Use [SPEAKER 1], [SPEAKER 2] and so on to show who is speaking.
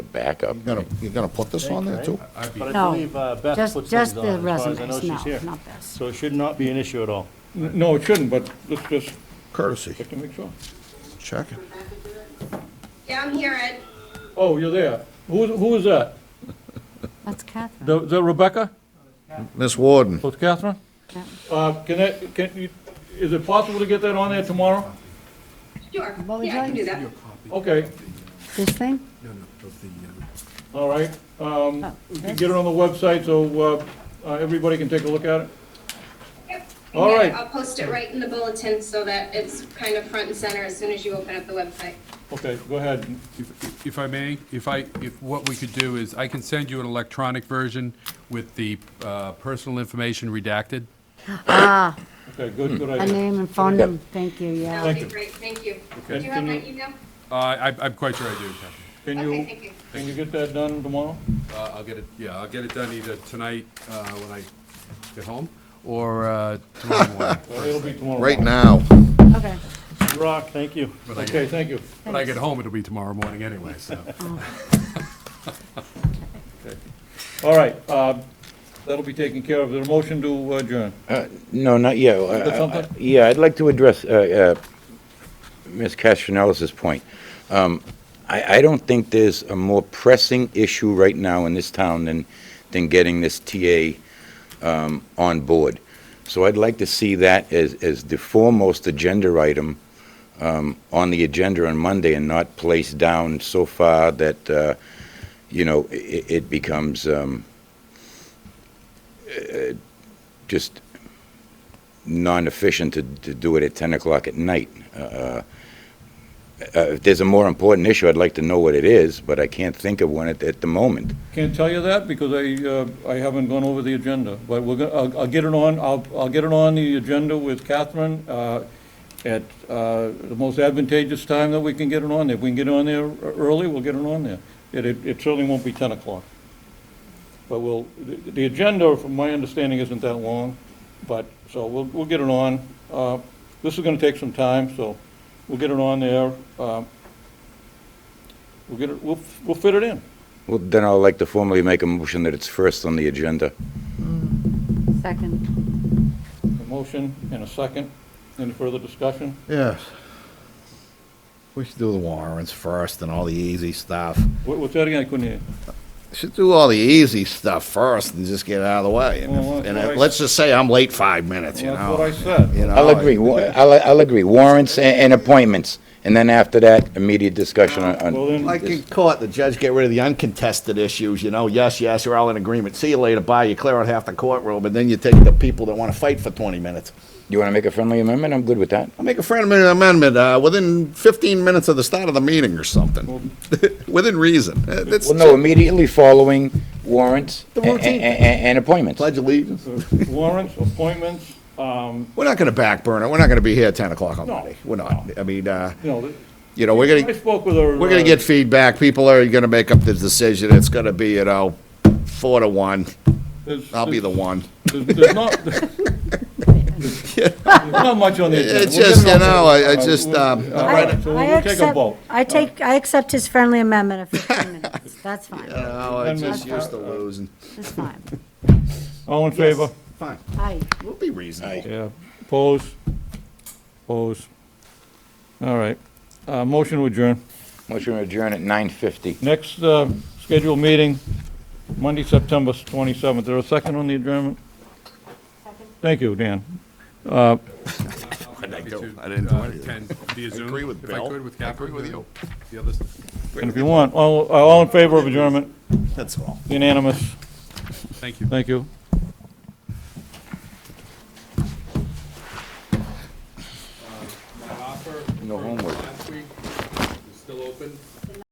[SPEAKER 1] backup.
[SPEAKER 2] You're gonna, you're gonna put this on there too?
[SPEAKER 3] I'd be-
[SPEAKER 4] But I
[SPEAKER 5] No,
[SPEAKER 4] believe uh, Beth
[SPEAKER 5] just-
[SPEAKER 4] puts
[SPEAKER 5] just
[SPEAKER 4] things on,
[SPEAKER 5] the
[SPEAKER 4] as far as I know
[SPEAKER 5] resumes, no,
[SPEAKER 4] she's here.
[SPEAKER 5] not this.
[SPEAKER 4] So it should not be an issue at all.
[SPEAKER 6] N- No, it shouldn't, but let's just
[SPEAKER 2] Courtesy,
[SPEAKER 6] check to make sure.
[SPEAKER 2] check it.
[SPEAKER 7] Yeah, I'm here, Ed.
[SPEAKER 6] Oh, you're there. Who, who is that?
[SPEAKER 5] That's Catherine.
[SPEAKER 6] The- Is that Rebecca?
[SPEAKER 2] Miss Warden,
[SPEAKER 6] Oh, it's Catherine?
[SPEAKER 5] Yeah.
[SPEAKER 6] Uh, can that, can you, is it possible to get that on there tomorrow?
[SPEAKER 7] Sure.
[SPEAKER 5] What would you
[SPEAKER 7] Yeah, I can
[SPEAKER 5] like?
[SPEAKER 7] do that.
[SPEAKER 6] Okay,
[SPEAKER 5] This thing?
[SPEAKER 6] all right. Um, we can get it on the website so, uh, uh, everybody can take a look at it.
[SPEAKER 7] Yep.
[SPEAKER 6] All
[SPEAKER 7] Yeah,
[SPEAKER 6] right.
[SPEAKER 7] I'll post it right in the bulletin so that it's kind of front and center as soon as you open up the website.
[SPEAKER 6] Okay, go ahead.
[SPEAKER 3] If if I may, if I, if, what we could do is, I can send you an electronic version with the uh, personal information redacted.
[SPEAKER 5] Ah,
[SPEAKER 6] Okay, good,
[SPEAKER 2] Hmm.
[SPEAKER 6] good
[SPEAKER 5] a
[SPEAKER 6] idea.
[SPEAKER 5] name and phone
[SPEAKER 1] Yeah.
[SPEAKER 5] number, thank you,
[SPEAKER 7] That
[SPEAKER 5] yeah.
[SPEAKER 7] would be
[SPEAKER 6] you.
[SPEAKER 7] great, thank you. Do
[SPEAKER 6] Okay.
[SPEAKER 7] you have my
[SPEAKER 6] Can
[SPEAKER 7] email?
[SPEAKER 3] Uh, I- I'm quite sure I do, Captain.
[SPEAKER 6] Can
[SPEAKER 7] Okay,
[SPEAKER 6] you,
[SPEAKER 7] thank you.
[SPEAKER 6] can you get that done tomorrow?
[SPEAKER 3] Uh, I'll get it, yeah, I'll get it done either tonight uh, when I get home, or uh, tomorrow morning.
[SPEAKER 6] Well, It'll be tomorrow.
[SPEAKER 2] right now.
[SPEAKER 5] Okay,
[SPEAKER 4] Rock, thank you.
[SPEAKER 3] When I
[SPEAKER 6] Okay,
[SPEAKER 3] get-
[SPEAKER 6] thank you.
[SPEAKER 3] when I get home, it'll be tomorrow morning anyway, so.
[SPEAKER 6] All right, uh, that'll be taken care of. Is there a motion to adjourn?
[SPEAKER 1] No, not yet. Uh,
[SPEAKER 6] got something?
[SPEAKER 1] Yeah, I'd like to address uh, uh, Ms. Castronellis's point. Um, I, I don't think there's a more pressing issue right now in this town than, than getting this TA um, on board. So I'd like to see that as, as the foremost agenda item um, on the agenda on Monday and not placed down so far that, uh, you know, i- i- it becomes um, uh, just non-efficient to, to do it at 10 o'clock at night. Uh, uh, If there's a more important issue, I'd like to know what it is, but I can't think of one at, at the moment.
[SPEAKER 6] Can't tell you that because I, uh, I haven't gone over the agenda, but we're, gonna- I'll, I'll get it on, I'll, I'll get it on the agenda with Catherine, uh, at, uh, the most advantageous time that we can get it on there. If we can get it on there e-, early, we'll get it on there. It, it it certainly won't be ten o'clock. But we'll, the, the agenda, from my understanding, isn't that long, but, so we'll, we'll get it on. Uh, this is gonna take some time, so we'll get it on there, uh, we'll get it, we'll, we'll fit it in.
[SPEAKER 1] Well, then I'd like to formally make a motion that it's first on the agenda.
[SPEAKER 5] second.
[SPEAKER 6] A motion and a second. Any further discussion?
[SPEAKER 2] Yes. We should do the warrants first and all the easy stuff.
[SPEAKER 6] What- What's that again? I couldn't hear.
[SPEAKER 2] Should do all the easy stuff first and just get it out of the way. And,
[SPEAKER 6] Well,
[SPEAKER 2] if- and
[SPEAKER 6] what
[SPEAKER 2] if-
[SPEAKER 6] I-
[SPEAKER 2] let's just say I'm late five minutes, you
[SPEAKER 6] Well,
[SPEAKER 2] know?
[SPEAKER 6] That's what I said.
[SPEAKER 2] You know,
[SPEAKER 1] I'll agree, wa- I'll, I'll agree, warrants and, and appointments, and then after that, immediate discussion on-
[SPEAKER 6] Well,
[SPEAKER 1] on,
[SPEAKER 6] then,
[SPEAKER 2] Like in court, the judge get rid of the uncontested issues, you know, yes, yes, you're all in agreement, see you later, bye, you clear out half the courtroom, and then you take the people that wanna fight for twenty minutes.
[SPEAKER 1] you want to make a friendly amendment? I'm good with that.
[SPEAKER 2] I'll make a friend amendment, uh, within fifteen minutes of the start of the meeting or something, within reason. Uh, that's-
[SPEAKER 1] Well, no, immediately following warrants
[SPEAKER 2] The
[SPEAKER 1] a- a- a-
[SPEAKER 2] routine.
[SPEAKER 1] a- and appointments.
[SPEAKER 2] Pledge allegiance.
[SPEAKER 6] warrants, appointments, um,
[SPEAKER 2] We're not gonna backburn it, we're not gonna be here at ten o'clock on
[SPEAKER 6] No.
[SPEAKER 2] Monday, we're not, I mean, uh,
[SPEAKER 6] you know,
[SPEAKER 2] you know, we're gonna.
[SPEAKER 6] I spoke with her.
[SPEAKER 2] We're gonna
[SPEAKER 6] uh,
[SPEAKER 2] get feedback, people are gonna make up the decision, it's gonna be, you know, four to one,
[SPEAKER 6] there's-
[SPEAKER 2] I'll be the one.
[SPEAKER 6] There's there's not, there's not much on the agenda.
[SPEAKER 2] It's
[SPEAKER 6] We'll get
[SPEAKER 2] just,
[SPEAKER 6] it
[SPEAKER 2] you
[SPEAKER 6] on
[SPEAKER 2] know,
[SPEAKER 6] there.
[SPEAKER 2] I- I
[SPEAKER 6] Uh,
[SPEAKER 2] just,
[SPEAKER 6] we'll-
[SPEAKER 2] um,
[SPEAKER 6] all
[SPEAKER 5] I-
[SPEAKER 6] right, so
[SPEAKER 5] I
[SPEAKER 6] we'll take a
[SPEAKER 5] accept-
[SPEAKER 6] vote.
[SPEAKER 5] I take, I accept his friendly amendment of 15 minutes. That's fine,
[SPEAKER 2] Oh, I
[SPEAKER 6] just used
[SPEAKER 2] to losing.
[SPEAKER 5] that's fine.
[SPEAKER 6] All in favor?
[SPEAKER 2] Fine,
[SPEAKER 5] Aye.
[SPEAKER 2] we'll be reasonable.
[SPEAKER 6] Yeah. Pose. Pose. All right. Uh, motion to adjourn.
[SPEAKER 1] Motion to adjourn at 9:50.
[SPEAKER 6] Next, uh, scheduled meeting, Monday, September 27th. There a second on the adjournment? Thank you, Dan. Uh,
[SPEAKER 2] I didn't do
[SPEAKER 3] To, uh,
[SPEAKER 2] anything.
[SPEAKER 3] attend via Zoom.
[SPEAKER 2] agree with
[SPEAKER 3] If I
[SPEAKER 2] Bill.
[SPEAKER 3] could, with
[SPEAKER 2] I
[SPEAKER 3] Catherine.
[SPEAKER 2] agree with
[SPEAKER 3] uh,
[SPEAKER 2] you.
[SPEAKER 3] The others.
[SPEAKER 6] And if you want, all, uh, all in favor of adjournment,
[SPEAKER 2] That's all.
[SPEAKER 6] unanimous.
[SPEAKER 3] Thank you.
[SPEAKER 6] Thank you.
[SPEAKER 3] My offer
[SPEAKER 1] No
[SPEAKER 3] from
[SPEAKER 1] homework.
[SPEAKER 3] last week is still open.